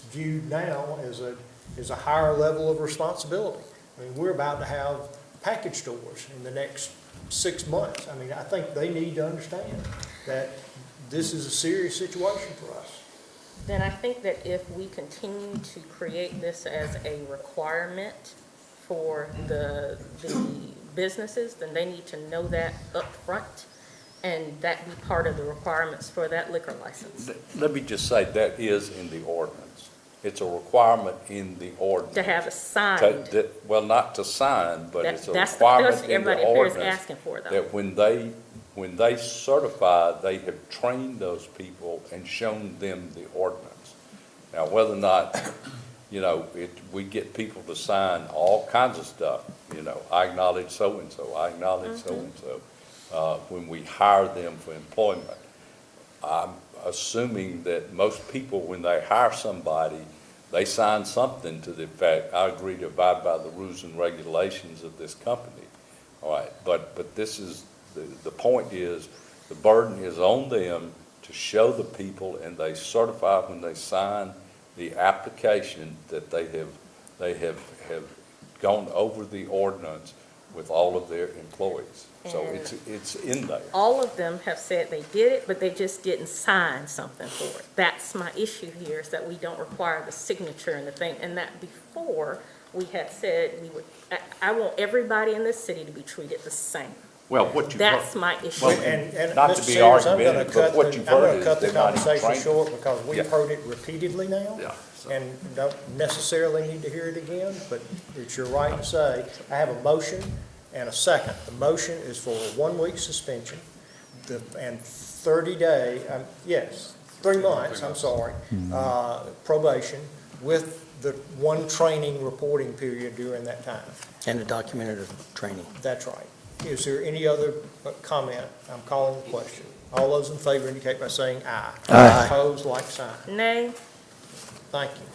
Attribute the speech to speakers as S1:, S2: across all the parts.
S1: viewed now as a, as a higher level of responsibility. I mean, we're about to have package stores in the next six months. I mean, I think they need to understand that this is a serious situation for us.
S2: Then I think that if we continue to create this as a requirement for the, the businesses, then they need to know that upfront, and that be part of the requirements for that liquor license,
S3: Let me just say, that is in the ordinance. It's a requirement in the ordinance.
S2: to have a
S3: To-
S2: signed.
S3: that- Well, not to sign, but
S2: That-
S3: it's
S2: that's
S3: a
S2: the- that's
S3: requirement in
S2: everybody
S3: the
S2: up here is
S3: ordinance.
S2: asking for, though.
S3: That when they, when they certify, they have trained those people and shown them the ordinance. Now, whether or not, you know, it, we get people to sign all kinds of stuff, you know, I acknowledge so-and-so, I acknowledge
S2: Mm-hmm.
S3: so-and-so, uh, when we hire them for employment. I'm assuming that most people, when they hire somebody, they sign something to the effect, I agree to abide by the rules and regulations of this company. All right, but, but this is, the, the point is, the burden is on them to show the people, and they certify when they sign the application that they have, they have, have gone over the ordinance with all of their employees. So
S2: And-
S3: it's, it's in there.
S2: All of them have said they did it, but they just didn't sign something for it. That's my issue here, is that we don't require the signature and the thing, and that before, we had said we would, I, I want everybody in this city to be treated the same.
S3: Well, what you.
S2: That's my issue.
S3: Well,
S1: And, and
S3: Not to
S1: Mr.
S3: be
S1: Sayers, I'm gonna
S3: argumentative, but
S1: cut
S3: what
S1: the, I'm
S3: you've heard
S1: gonna
S3: is
S1: cut the
S3: they're not even
S1: conversation
S3: trained.
S1: short because we've
S3: Yeah.
S1: heard it repeatedly now.
S3: Yeah, so-
S1: And don't necessarily need to hear it again, but it's your right to say, I have a motion and a second. The motion is for a one-week suspension the- and thirty-day, um, yes, three months, I'm sorry, uh, probation with the one training reporting period during that time.
S4: And the documented training.
S1: That's right. Is there any other uh, comment? I'm calling the question. All those in favor indicate by saying aye.
S4: Aye.
S1: Opposed, like sign.
S2: Nay,
S1: Thank you.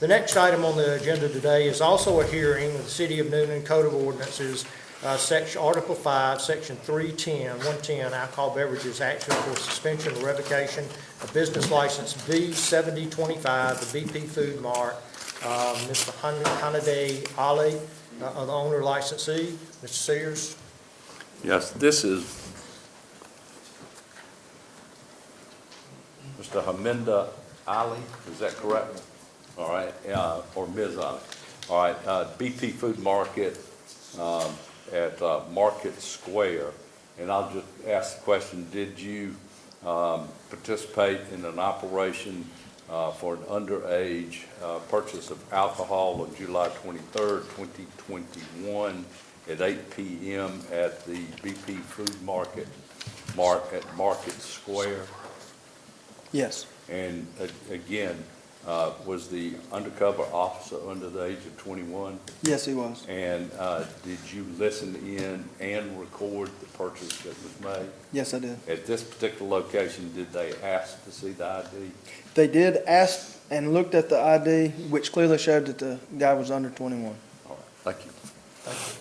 S1: The next item on the agenda today is also a hearing of the City of Newnan Code of Ordinances, uh, section, Article 5, Section 310, 110, alcohol beverages, action for suspension or revocation of business license B7025, the BP Food Mart, uh, Mr. Han- Hanaday Ali, uh, are the owner licensee, Mr. Sears.
S3: Yes, this is Mr. Haminda Ali, is that correct? All right, uh, or Ms. Ali. All right, uh, BP Food Market um, at uh, Market Square. And I'll just ask the question, did you um, participate in an operation uh, for an underage uh, purchase of alcohol on July 23rd, 2021 at 8 PM at the BP Food Market, Mart at Market Square?
S4: Yes.
S3: And a- again, uh, was the undercover officer under the age of 21?
S4: Yes, he was.
S3: And uh, did you listen in and record the purchase that was made?
S4: Yes, I did.
S3: At this particular location, did they ask to see the ID?
S4: They did ask and looked at the ID, which clearly showed that the guy was under 21.
S3: All right, thank you.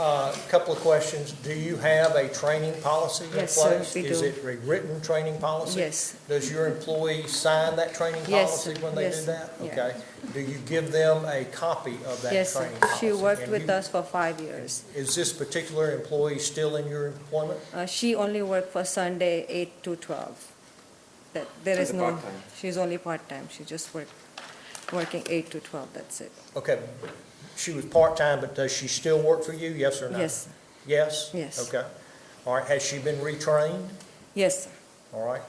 S1: Uh, A Couple of questions. Do you have a training policy in place?
S5: Yes, sir, we
S1: Is
S5: do.
S1: it a written training policy?
S5: Yes.
S1: Does your employee sign that training
S5: Yes,
S1: policy when they do
S5: yes,
S1: that?
S5: yeah.
S1: Okay. Do you give them a copy of that
S5: Yes,
S1: training policy?
S5: she worked
S1: And
S5: with
S1: you-
S5: us for five years.
S1: Is this particular employee still in your employment?
S5: Uh, She only worked for Sunday, eight to twelve. That, there is no, she's only part-time, she just worked, working eight to twelve, that's it.
S1: Okay. She was part-time, but does she still work for you? Yes or no?
S5: Yes,
S1: Yes?
S5: Yes.
S1: Okay. All right. Has she been retrained?
S5: yes, sir.
S1: All right.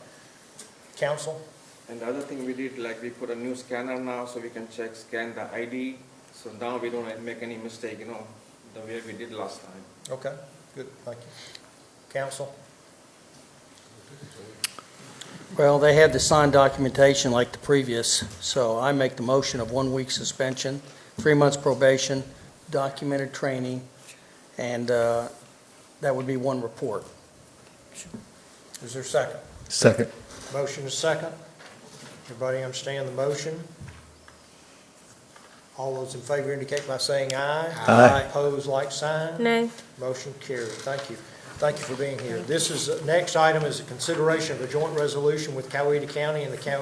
S1: Counsel?
S6: And the other thing we did, like we put a new scanner now, so we can check, scan the ID, so now we don't make any mistake, you know, the way we did last time.
S1: Okay. Good. Thank you. Counsel?
S7: Well, they have the signed documentation like the previous, so I make the motion of one week suspension, three months probation, documented training, and uh, that would be one report.
S1: Is there a second?
S8: Second.
S1: Motion is second. Everybody understand the motion? All those in favor indicate by saying aye.
S8: Aye.
S1: Opposed, like sign.
S2: nay,
S1: Motion carried. Thank you. Thank you for being here. This is, next item is a consideration of a joint resolution with Coweta County and the County